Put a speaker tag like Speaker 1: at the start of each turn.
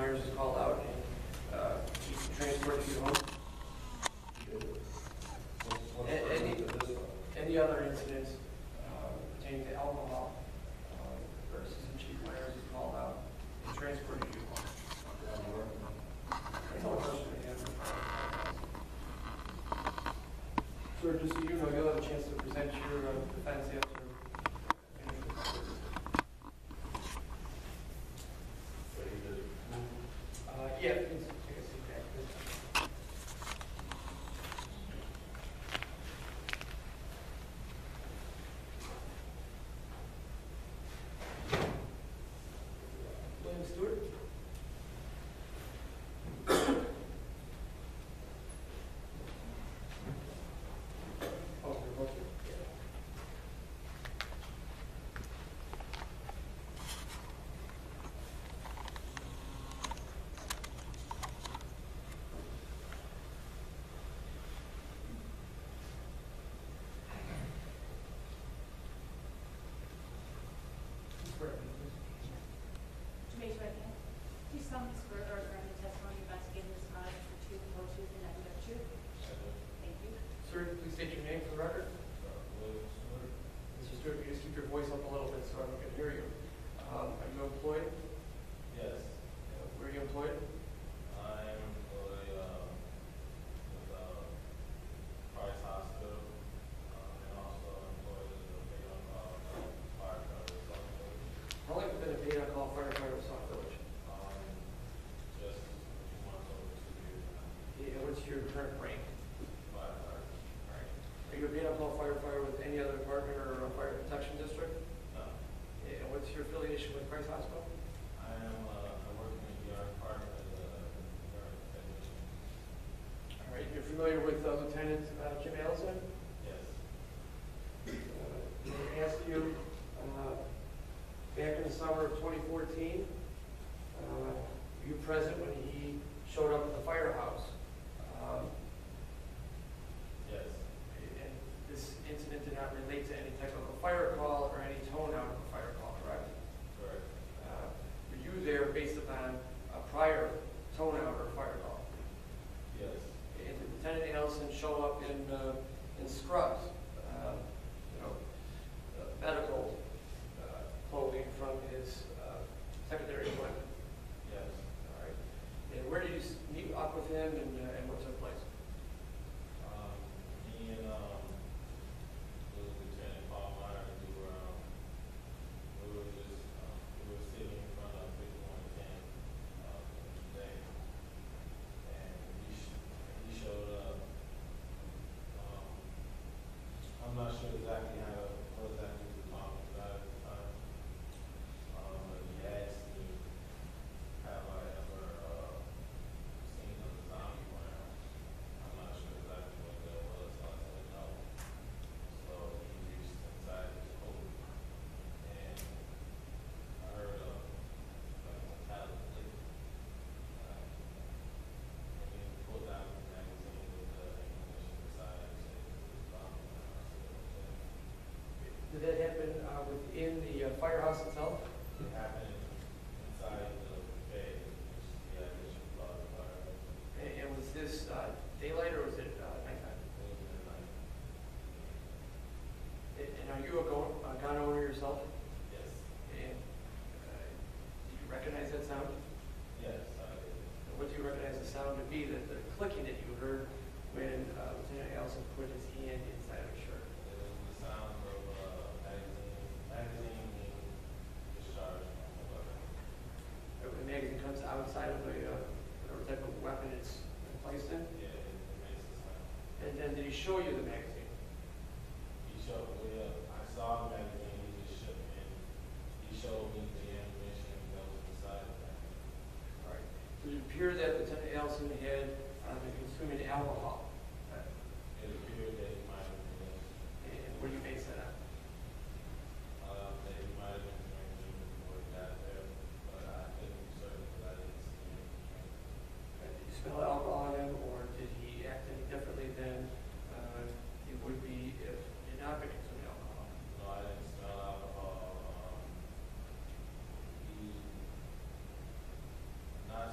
Speaker 1: work uh, you home. A- Any, any other incidents uh, pertaining to alcohol, uh, versus the chief mayor's called out and transported you home? That's all the question I have. Sir, just so you know, you'll have a chance to present your uh, defense after. Uh, yeah, please take a seat back there. William Stewart? Oh, you're both here. Swear, please.
Speaker 2: To raise your right hand. Do you solemnly swear or affirm the testimony you're about to give in this matter is the truth, the whole truth, and nothing but the truth? Thank you.
Speaker 1: Sir, please state your name for the record. Mr. Stewart, if you just keep your voice up a little bit so everyone can hear you. Um, Are you employed?
Speaker 3: Yes,
Speaker 1: Uh, Where are you employed?
Speaker 3: I'm employed um, with uh, Price Hospital, um, and also employed as a field uh, firefighter in South Village.
Speaker 1: How long have you been a paid on-call firefighter in South Village?
Speaker 3: Um, just two months over two years now,
Speaker 1: Yeah, What's your current rank?
Speaker 3: firefighter. Right.
Speaker 1: Are you a paid on-call firefighter with any other department or a fire protection district?
Speaker 3: No,
Speaker 1: Yeah, And what's your affiliation with Christ Hospital?
Speaker 3: I am uh, I work in the ER department as a ER technician.
Speaker 1: All right, you're familiar with uh, Lieutenant uh, Jim Allison?
Speaker 3: Yes,
Speaker 1: I asked you, uh, back in the summer of 2014, uh, were you present when he showed up at the firehouse? Um,
Speaker 3: yes,
Speaker 1: And this incident did not relate to any type of a fire call or any tone out of a fire call, correct?
Speaker 3: correct.
Speaker 1: Uh, Were you there based upon a prior tone out or fire call?
Speaker 3: Yes,
Speaker 1: And did Lieutenant Allison show up in, uh, in scrubs, uh, you know, uh, medical uh, clothing from his uh, secondary appointment?
Speaker 3: yes.
Speaker 1: All right. And where did you s- meet up with him and, uh, and what took place?
Speaker 3: Um, me and, um, the Lieutenant Paul Meyer, we were, um, we were just, um, we were sitting in front of fifty-one ten, um, today. And he sh- he showed up, um, I'm not sure exactly how, what exactly he was talking about at the time. Um, but he asked me, have I ever, uh, seen a zombie around? I'm not sure exactly what that was, so I said no. So he reached inside his coat and I heard a, like a metallic click. Uh, And then he pulled out the magazine with the ammunition inside and said, "This is bomb." And I said, "Okay."
Speaker 1: Did that happen uh, within the uh, firehouse itself?
Speaker 3: It happened inside the bay, which is the ammunition block fire. It
Speaker 1: And- And was this uh, daylight or was it uh, nighttime?
Speaker 3: was midnight.
Speaker 1: And and are you a gun, a gun owner yourself?
Speaker 3: Yes,
Speaker 1: And uh, do you recognize that sound?
Speaker 3: yes, I did.
Speaker 1: And What do you recognize the sound to be, that the clicking that you heard when uh, Lieutenant Allison put his hand inside her shirt?
Speaker 3: It was the sound of uh, magazine, magazine being discharged from the weapon.
Speaker 1: Uh, When the magazine comes outside of the, uh, whatever type of weapon it's placed in?
Speaker 3: Yeah, it, it makes a sound.
Speaker 1: And then did he show you the magazine?
Speaker 3: He showed me, uh, I saw the magazine, he just shook me. He showed me the ammunition that was inside the magazine.
Speaker 1: All right. Did it appear that Lieutenant Allison had uh, been consuming alcohol? Uh, uh,